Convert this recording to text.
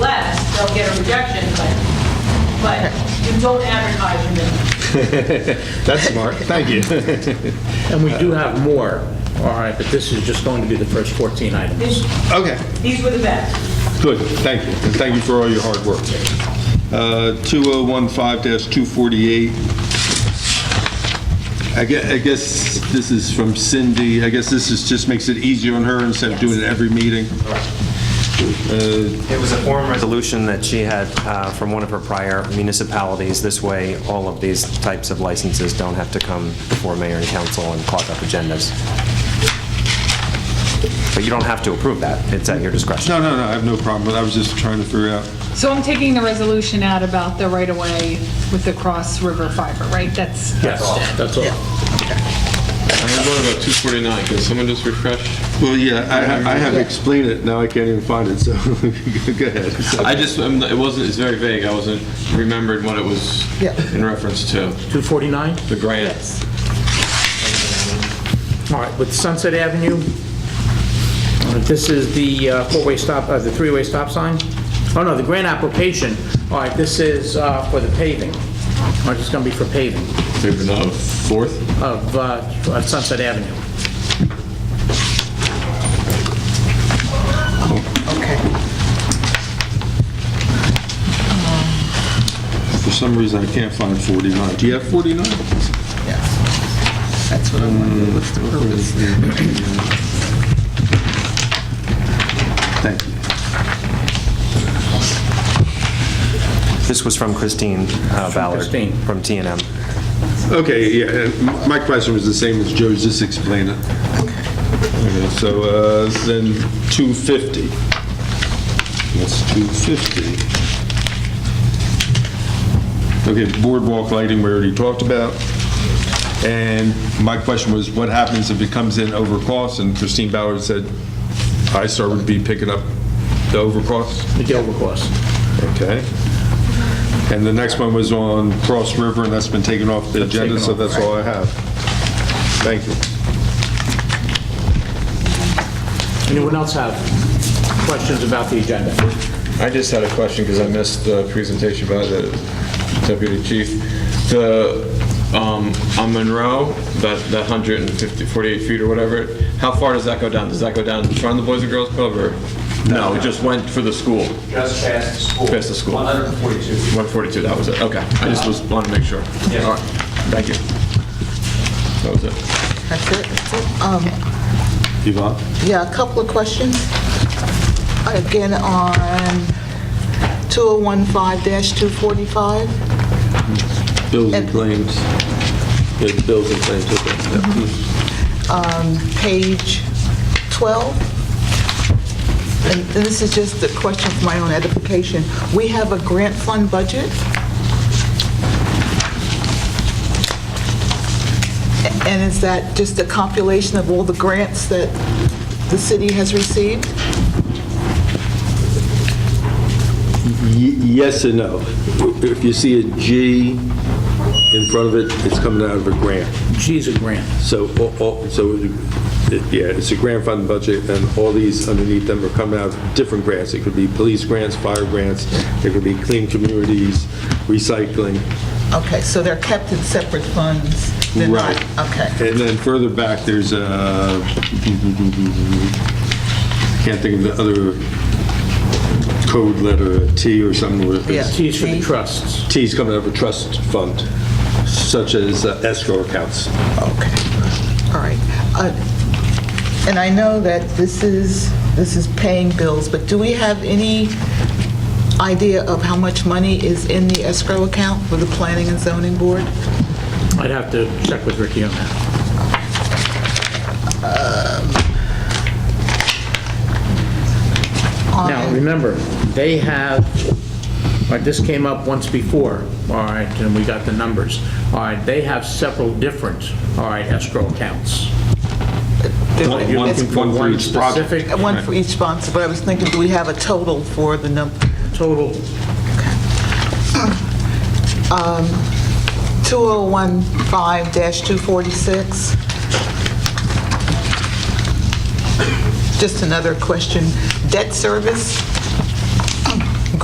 rejection, but, but you don't advertise your minimum. That's smart, thank you. And we do have more, all right, but this is just going to be the first 14 items. These- Okay, These were the best. good, thank you, and thank you for all your hard work. Uh, 2015-248, I gue- I guess this is from Cindy, I guess this is, just makes it easier on her instead of doing it every meeting. It was a form resolution that she had uh, from one of her prior municipalities. This way, all of these types of licenses don't have to come before mayor and council and clog up agendas. But you don't have to approve that. It's at your discretion. No, no, no, I have no problem, but I was just trying to figure out, So I'm taking the resolution out about the right-of-way with the Cross River Fiber, right? That's, Yes, that's all. I have one about 249, can someone just refresh? well, yeah, I ha- I have explained it, now I can't even find it, so, go ahead. I just, I'm not- it wasn't, it's very vague, I wasn't remembered what it was in reference to, 249? the grant. All right, with Sunset Avenue, uh, this is the uh, four-way stop, uh, the three-way stop sign? Oh, no, the grant application. All right, this is uh, for the paving. All right, it's going to be for paving Maybe not fourth? of uh, of Sunset Avenue. For some reason, I can't find 49. Do you have 49? That's what I wanted to lift the purpose. Thank you. This was from Christine uh, Ballard. Christine. From TNM. Okay, yeah, and m- my question was the same as Joe's, just explain it. Okay, So uh, then 250. That's 250. Okay, boardwalk lighting, we already talked about. And my question was, what happens if it comes in over cost? And Christine Ballard said, ISTAR would be picking up the over cost? The Dover course. Okay. And the next one was on Cross River, and that's been taken off the agenda, so that's all I have. Thank you. Anyone else have questions about the agenda? I just had a question because I missed the presentation by the deputy chief. The, um, on Monroe, that, that 150, 48 feet or whatever, how far does that go down? Does that go down in front of the Boys and Girls Club or? No, it just went for the school, Just past the school. past the school. 142. 142, that was it, okay. I just was, wanted to make sure. Yeah. All right, thank you. That was it. That's it? Um, Yvonne? Yeah, a couple of questions. Again, on 2015-245. Bills and and claims. Yeah, bills and claims, okay. Mm-hmm. Um, page 12. And this is just a question for my own edification. We have a grant fund budget. And is that just a compilation of all the grants that the city has received? Ye- Yes and no. If you see a G in front of it, it's coming out of a grant. G's a grant. So, all- all- so, it- yeah, it's a grant fund budget, and all these underneath them are coming out of different grants. It could be police grants, fire grants, it could be clean communities, recycling. Okay, so they're kept in separate funds? They're not- Okay. And then further back, there's a, can't think of the other code letter, a T or something. where Yeah. it's- G's for the trusts. T's coming out of a trust fund, such as uh, escrow accounts. Okay, all right. Uh, And I know that this is, this is paying bills, but do we have any idea of how much money is in the escrow account for the Planning and Zoning Board? I'd have to check with Ricky on that. Now, remember, they have, all right, this came up once before, all right, and we got the numbers. All right, they have several different, all right, escrow accounts. One- one- It's- one for One each project. specific One for each sponsor, but I was thinking, do we have a total for the number? total, 2015-246. Just another question. Debt service?